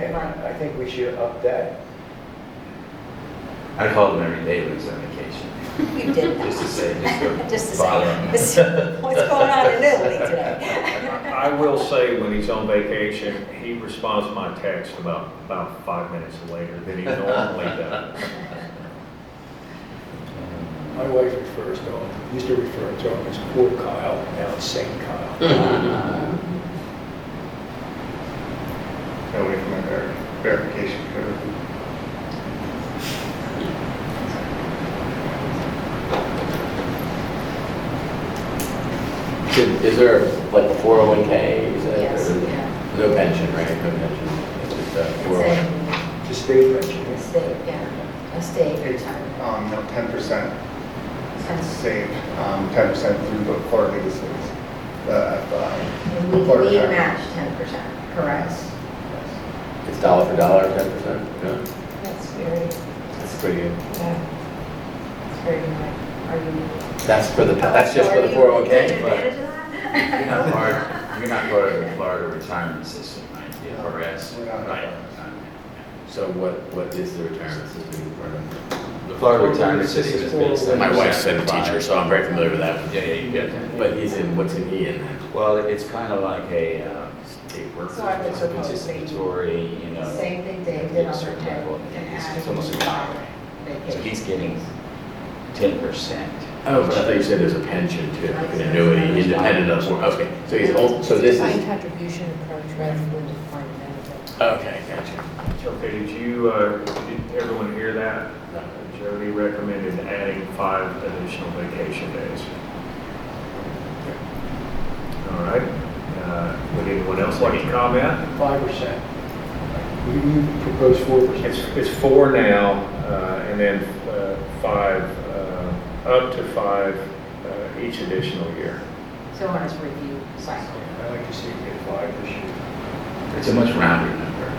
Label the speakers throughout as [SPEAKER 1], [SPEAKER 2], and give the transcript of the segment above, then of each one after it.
[SPEAKER 1] Right.
[SPEAKER 2] I think we should up that.
[SPEAKER 3] I called him every day when he's on vacation,
[SPEAKER 1] You did
[SPEAKER 3] just to
[SPEAKER 1] that.
[SPEAKER 3] say,
[SPEAKER 1] Just
[SPEAKER 3] just
[SPEAKER 1] to
[SPEAKER 3] to
[SPEAKER 1] say,
[SPEAKER 3] bother him.
[SPEAKER 1] what's going on in Italy today?
[SPEAKER 4] I I will say, when he's on vacation, he responds to my text about, about five minutes later than he normally does.
[SPEAKER 2] My wife refers to him, used to refer to him as poor Kyle, now it's Saint Kyle.
[SPEAKER 5] Mm-hmm.
[SPEAKER 6] Got away from my ver- verification code.
[SPEAKER 5] Should- Is there like 401K? Is that-
[SPEAKER 1] Yes,
[SPEAKER 5] or-
[SPEAKER 1] yeah.
[SPEAKER 5] No pension, right? No pension. It's just, uh, 401K.
[SPEAKER 1] Exactly.
[SPEAKER 2] The state mentioned
[SPEAKER 1] A
[SPEAKER 2] it.
[SPEAKER 1] state, yeah, a state
[SPEAKER 6] It's,
[SPEAKER 1] retirement.
[SPEAKER 6] um, ten percent
[SPEAKER 1] And
[SPEAKER 6] saved, um, ten percent through the quarterly, is- is the,
[SPEAKER 1] and
[SPEAKER 6] uh,
[SPEAKER 1] we,
[SPEAKER 6] quarter.
[SPEAKER 1] we match ten percent, correct?
[SPEAKER 5] It's dollar for dollar, 10%? No,
[SPEAKER 1] That's very,
[SPEAKER 5] that's pretty good.
[SPEAKER 1] yeah, it's very, like, are you?
[SPEAKER 5] That's for the, that's just for the
[SPEAKER 1] Are you
[SPEAKER 5] 401K?
[SPEAKER 1] taking
[SPEAKER 5] but-
[SPEAKER 1] advantage of
[SPEAKER 3] You're
[SPEAKER 1] that?
[SPEAKER 3] not part, you're not part of the Florida retirement system, right? The FRS,
[SPEAKER 6] We're not.
[SPEAKER 3] right?
[SPEAKER 5] So what, what is the retirement system part of?
[SPEAKER 3] The Florida retirement system
[SPEAKER 6] oh
[SPEAKER 3] is based on.
[SPEAKER 2] My
[SPEAKER 3] wife's
[SPEAKER 5] so I'm very familiar with that.
[SPEAKER 3] Yeah, yeah, you get that.
[SPEAKER 5] But he's in, what's in he in?
[SPEAKER 3] Well, it's kind of like a, uh, a workers'
[SPEAKER 1] So I was proposing-
[SPEAKER 3] participatory, you know.
[SPEAKER 1] Same thing
[SPEAKER 3] you
[SPEAKER 1] they did
[SPEAKER 3] get a
[SPEAKER 1] on their
[SPEAKER 3] certain
[SPEAKER 1] pay.
[SPEAKER 3] level,
[SPEAKER 1] and
[SPEAKER 3] and it's-
[SPEAKER 1] add
[SPEAKER 3] It's almost a retirement. So he's getting
[SPEAKER 1] vacations.
[SPEAKER 3] ten percent.
[SPEAKER 5] Oh, I thought you said there's a pension too, an annuity independent of, okay. So he's, old. oh, so this
[SPEAKER 7] Defined
[SPEAKER 5] is,
[SPEAKER 7] contribution approach rather than defined benefit.
[SPEAKER 5] okay, gotcha.
[SPEAKER 4] Okay, did you, uh, did everyone hear that? Jody recommended adding five additional vacation days. All right, uh, would anyone else like to comment?
[SPEAKER 2] Five percent. You, you propose four
[SPEAKER 4] It's,
[SPEAKER 2] percent.
[SPEAKER 4] it's four now, uh, and then, uh, five, uh, up to five, uh, each additional year.
[SPEAKER 1] So on his review cycle.
[SPEAKER 2] I like to see it get five this year.
[SPEAKER 3] It's a much rounder number.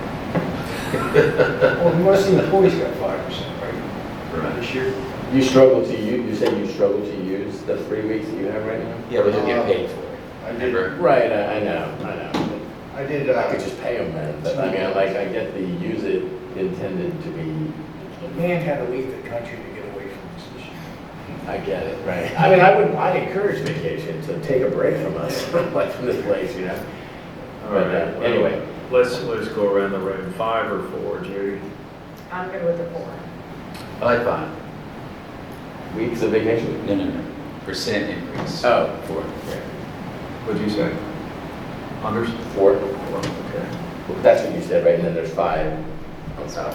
[SPEAKER 2] Well, most of the employees got five percent, right? This year,
[SPEAKER 5] You struggle to, u- you say you struggle to use the three weeks that you have right now?
[SPEAKER 3] Yeah, but he'll get paid for it.
[SPEAKER 6] I did-
[SPEAKER 3] Remember?
[SPEAKER 5] Right, I, I know, I know.
[SPEAKER 6] I did,
[SPEAKER 5] I could
[SPEAKER 6] uh,
[SPEAKER 5] just pay them then, but I mean, I like, I get the use it intended to be,
[SPEAKER 2] the man had to leave the country to get away from this issue.
[SPEAKER 5] I get it, right? I mean, I would, I encourage vacation, to take a break from us, like from this place, you know?
[SPEAKER 4] All
[SPEAKER 5] But, uh,
[SPEAKER 4] right, well,
[SPEAKER 5] anyway.
[SPEAKER 4] Let's, let's go around the room, five or four, Judy?
[SPEAKER 1] I'm good with the four.
[SPEAKER 3] I like five.
[SPEAKER 5] Weeks of vacation?
[SPEAKER 3] No, no, no. Percent increase.
[SPEAKER 5] Oh,
[SPEAKER 3] Four.
[SPEAKER 4] What'd you say? Anders?
[SPEAKER 5] four,
[SPEAKER 4] Okay.
[SPEAKER 5] that's what you said, right, and then there's five on top.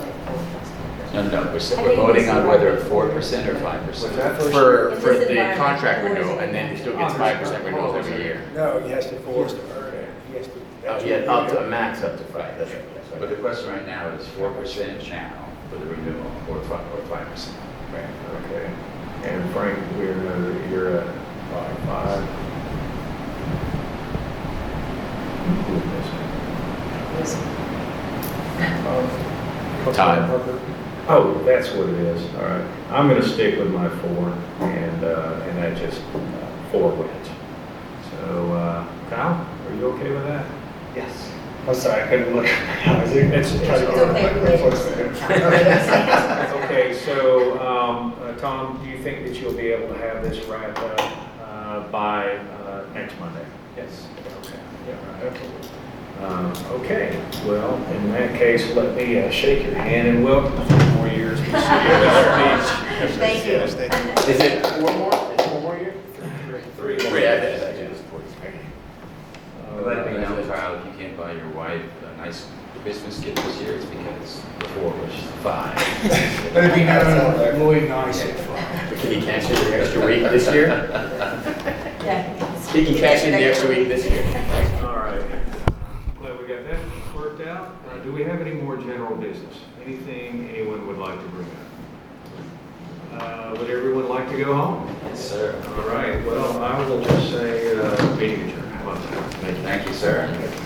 [SPEAKER 3] No, no, we're, s-
[SPEAKER 1] I
[SPEAKER 3] we're
[SPEAKER 1] think
[SPEAKER 3] voting
[SPEAKER 1] it's
[SPEAKER 3] on
[SPEAKER 1] the-
[SPEAKER 3] whether four percent or five percent.
[SPEAKER 5] For,
[SPEAKER 1] Is
[SPEAKER 5] for
[SPEAKER 1] this
[SPEAKER 5] the
[SPEAKER 1] environment
[SPEAKER 5] contract
[SPEAKER 1] always
[SPEAKER 5] renewal, and then he still gets five percent renewals every year.
[SPEAKER 2] No, he has to, he has to earn it. He has to.
[SPEAKER 5] Oh,
[SPEAKER 2] that's
[SPEAKER 5] yeah,
[SPEAKER 2] what
[SPEAKER 5] up
[SPEAKER 2] we do.
[SPEAKER 5] to, a max up to five, that's right, that's
[SPEAKER 3] But
[SPEAKER 5] right.
[SPEAKER 3] the question right now is four percent now for the renewal or five, or five percent?
[SPEAKER 4] Okay. And Frank, we're, you're at five, five.
[SPEAKER 1] Yes.
[SPEAKER 5] Time.
[SPEAKER 4] Oh, that's what it is. All right. I'm going to stick with my four and, uh, and that just, uh, four wins. So, uh, Kyle, are you okay with that?
[SPEAKER 6] yes, I'm sorry, I couldn't look. I was trying
[SPEAKER 4] It's-
[SPEAKER 6] to
[SPEAKER 4] it's
[SPEAKER 6] get
[SPEAKER 1] It's
[SPEAKER 6] on my
[SPEAKER 1] okay, wait.
[SPEAKER 6] replacement.
[SPEAKER 4] Okay, so, um, uh, Tom, do you think that you'll be able to have this wrapped up, uh, by, uh, next Monday? Yes. Okay. Yeah, right. Um, Okay, well, in that case, let me uh, shake your hand and welcome you for four years. to CSRB.
[SPEAKER 1] Thank you.
[SPEAKER 4] Yes, thank you.
[SPEAKER 5] Is it four more, is it four more years?
[SPEAKER 4] Three.
[SPEAKER 5] Three, I did, I did, it's four.
[SPEAKER 4] All
[SPEAKER 3] Let me
[SPEAKER 4] right.
[SPEAKER 3] know, Kyle, if you can't buy your wife a nice Christmas gift this year, it's because the four was five.
[SPEAKER 2] Let it be known, Lloyd and I said five.
[SPEAKER 5] But Can you cash in the extra week this year?
[SPEAKER 1] Yeah.
[SPEAKER 5] He can cash in the extra week this year.
[SPEAKER 4] All right. Glad we got that worked out. Uh, Do we have any more general business? Anything anyone would like to bring up? Uh, Would everyone like to go home?
[SPEAKER 3] Yes, sir.
[SPEAKER 4] All right, well, I will just say, uh, meeting adjourned. How about that?
[SPEAKER 3] Thank you, sir.